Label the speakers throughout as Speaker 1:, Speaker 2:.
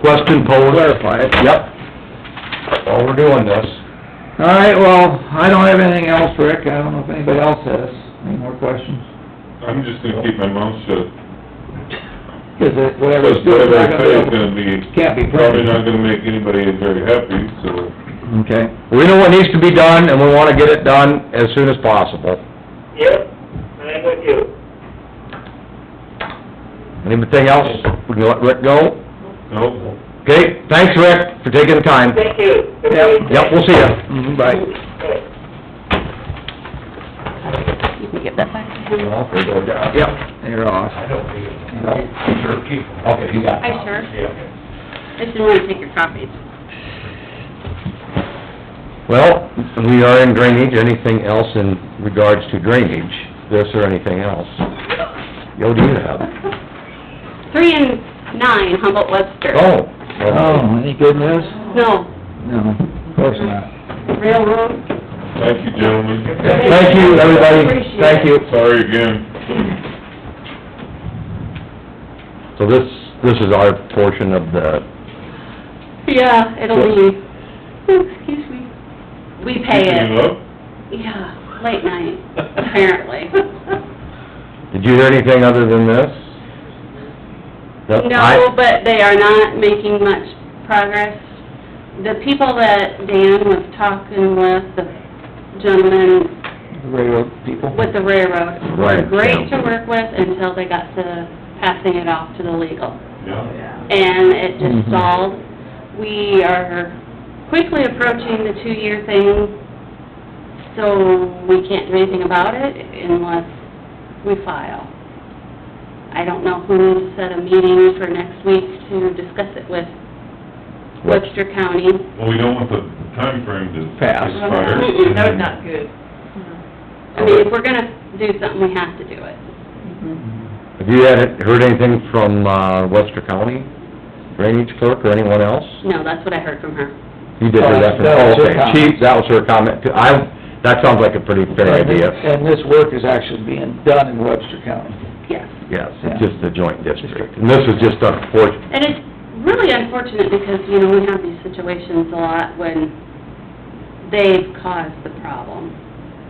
Speaker 1: question posed.
Speaker 2: clarify it.
Speaker 1: Yep. While we're doing this,
Speaker 2: All right, well, I don't have anything else, Rick. I don't know if anybody else has any more questions.
Speaker 3: I'm just gonna keep my mouth shut,
Speaker 2: Cause it, whatever
Speaker 3: because
Speaker 2: it's doing,
Speaker 3: whatever
Speaker 2: it's not gonna
Speaker 3: I
Speaker 2: be
Speaker 3: say is
Speaker 2: able-
Speaker 3: gonna be,
Speaker 2: can't be
Speaker 3: probably
Speaker 2: printed.
Speaker 3: not gonna make anybody very happy, so.
Speaker 1: okay, we know what needs to be done, and we wanna get it done as soon as possible.
Speaker 4: Yep, I'm with you.
Speaker 1: Anything else? We can let Rick go?
Speaker 3: No,
Speaker 1: Okay, thanks, Rick, for taking the time.
Speaker 4: Thank you.
Speaker 2: Yep.
Speaker 1: Yep, we'll see ya.
Speaker 2: Mhm, Bye.
Speaker 4: Bye.
Speaker 5: You can get that back.
Speaker 2: Yep, you're off.
Speaker 5: I sure. I just didn't wanna take your copies.
Speaker 1: Well, we are in drainage, anything else in regards to drainage, this or anything else? Yo, do you have?
Speaker 5: Three and nine Humboldt Webster.
Speaker 1: Oh.
Speaker 2: Oh, any good news?
Speaker 5: No,
Speaker 2: No, of course not.
Speaker 5: railroad.
Speaker 3: thank you, gentlemen.
Speaker 1: Thank you, everybody,
Speaker 5: Appreciate
Speaker 1: thank you.
Speaker 3: Sorry again.
Speaker 1: So this, this is our portion of the,
Speaker 5: Yeah, it'll be, oh, excuse me. We pay
Speaker 6: uh,
Speaker 3: Keeping
Speaker 5: it,
Speaker 3: up?
Speaker 5: yeah, late night, apparently.
Speaker 1: did you hear anything other than this?
Speaker 5: No, but they are not making much progress. The people that Dan was talking with, the gentleman
Speaker 2: Railroad people.
Speaker 5: with the railroad.
Speaker 1: Right,
Speaker 5: Great
Speaker 1: yeah.
Speaker 5: to work with until they got to passing it off to the legal.
Speaker 3: Yeah.
Speaker 5: And it
Speaker 2: Mhm.
Speaker 1: Mm-hmm.
Speaker 5: just stalled. We are quickly approaching the two-year thing, so we can't do anything about it unless we file. I don't know who set a meeting for next week to discuss it with Webster County.
Speaker 3: Well, we don't want the timeframe to
Speaker 2: Pass.
Speaker 3: expire.
Speaker 5: Mm-mm,
Speaker 6: That was not good.
Speaker 5: I mean, if we're gonna do something, we have to do it.
Speaker 1: Have you had, heard anything from, uh, Webster County Drainage Clerk or anyone else?
Speaker 5: No, that's what I heard from her.
Speaker 1: You did hear that from,
Speaker 2: Uh, That was her
Speaker 1: okay, she, that was her comment, too. I, that sounds like a pretty fair idea,
Speaker 2: And this work is actually being done in Webster County.
Speaker 5: Yes.
Speaker 1: yes, it's just a joint district. And this is just a portion,
Speaker 5: And it's really unfortunate because, you know, we have these situations a lot when they've caused the problem.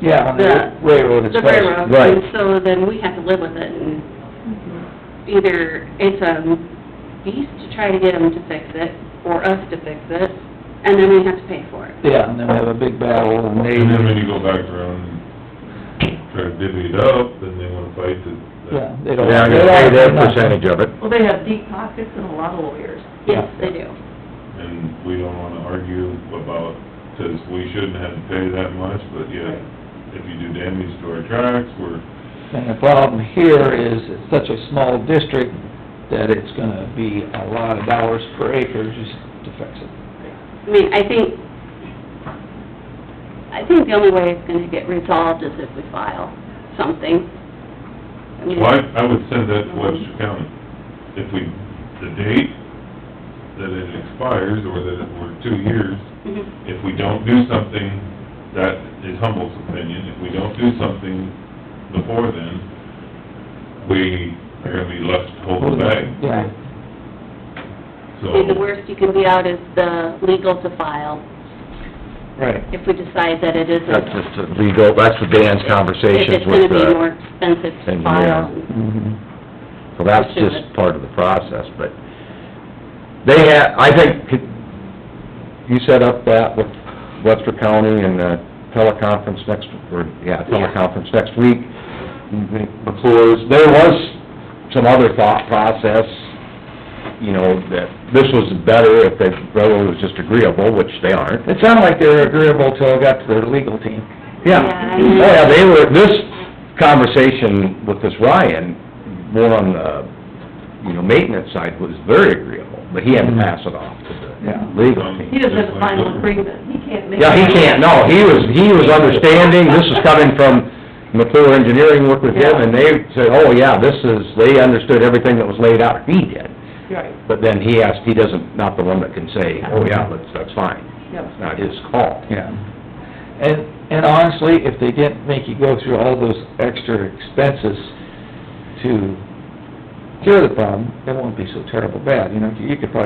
Speaker 2: Yeah, on the
Speaker 5: The-
Speaker 2: railroad
Speaker 5: The
Speaker 2: especially.
Speaker 5: railroad,
Speaker 1: Right.
Speaker 5: and so then we have to live with it and either it's a beast to try to get them to fix it or us to fix it, and then we have to pay for it.
Speaker 2: Yeah, and then we have a big battle and they,
Speaker 3: And then when you go back around and try to divvy it up, then they wanna fight the,
Speaker 2: yeah, they don't.
Speaker 1: they're gonna pay their percentage of it.
Speaker 6: Well, they have deep pockets and a lot of lawyers.
Speaker 5: Yes, they do.
Speaker 3: and we don't wanna argue about, says we shouldn't have to pay that much, but yet, if you do damage to our tracks, we're,
Speaker 2: And the problem here is it's such a small district that it's gonna be a lot of dollars per acre just to fix it.
Speaker 5: I mean, I think, I think the only way it's gonna get resolved is if we file something. I mean,
Speaker 3: well, I, I would send that to Webster County. If we, the date that it expires, or that it were two years,
Speaker 5: Mhm.
Speaker 3: if we don't do something, that is Humboldt's opinion, if we don't do something before then, we are gonna be left holding back,
Speaker 2: Yeah.
Speaker 3: so.
Speaker 5: See, the worst you can be out is the legal to file,
Speaker 2: Right.
Speaker 5: if we decide that it isn't.
Speaker 1: That's just a legal, that's the Dan's conversations with
Speaker 5: It's gonna be more
Speaker 1: the,
Speaker 5: expensive to
Speaker 1: engineer.
Speaker 5: file.
Speaker 2: Mhm.
Speaker 1: so that's just part of the process, but they had, I think, could- you set up that with Webster County and uh teleconference next, or, yeah, teleconference next week, McClure's, there was some other thought process, you know, that this was better if the railroad was just agreeable, which they aren't,
Speaker 2: It sounded like they were agreeable till I got to their legal team.
Speaker 1: Yeah,
Speaker 5: Yeah, I
Speaker 1: oh
Speaker 5: know.
Speaker 1: yeah, they were, this conversation with this Ryan, more on the, you know, maintenance side was very agreeable, but he had to pass it off to
Speaker 2: Yeah.
Speaker 1: the legal
Speaker 6: He
Speaker 1: team.
Speaker 6: doesn't have a final agreement, he can't make.
Speaker 1: Yeah, he can't, no, he was, he was understanding, this is coming from McClure Engineering, worked with him, and they said, oh yeah, this is, they understood everything that was laid out, he did.
Speaker 6: Right,
Speaker 1: But then he asked, he doesn't, not the one that can say, oh yeah, that's, that's fine,
Speaker 6: yeah.
Speaker 1: it's not his call.
Speaker 2: Yeah. And, and honestly, if they didn't make you go through all those extra expenses to cure the problem, it wouldn't be so terrible bad, you know, you could probably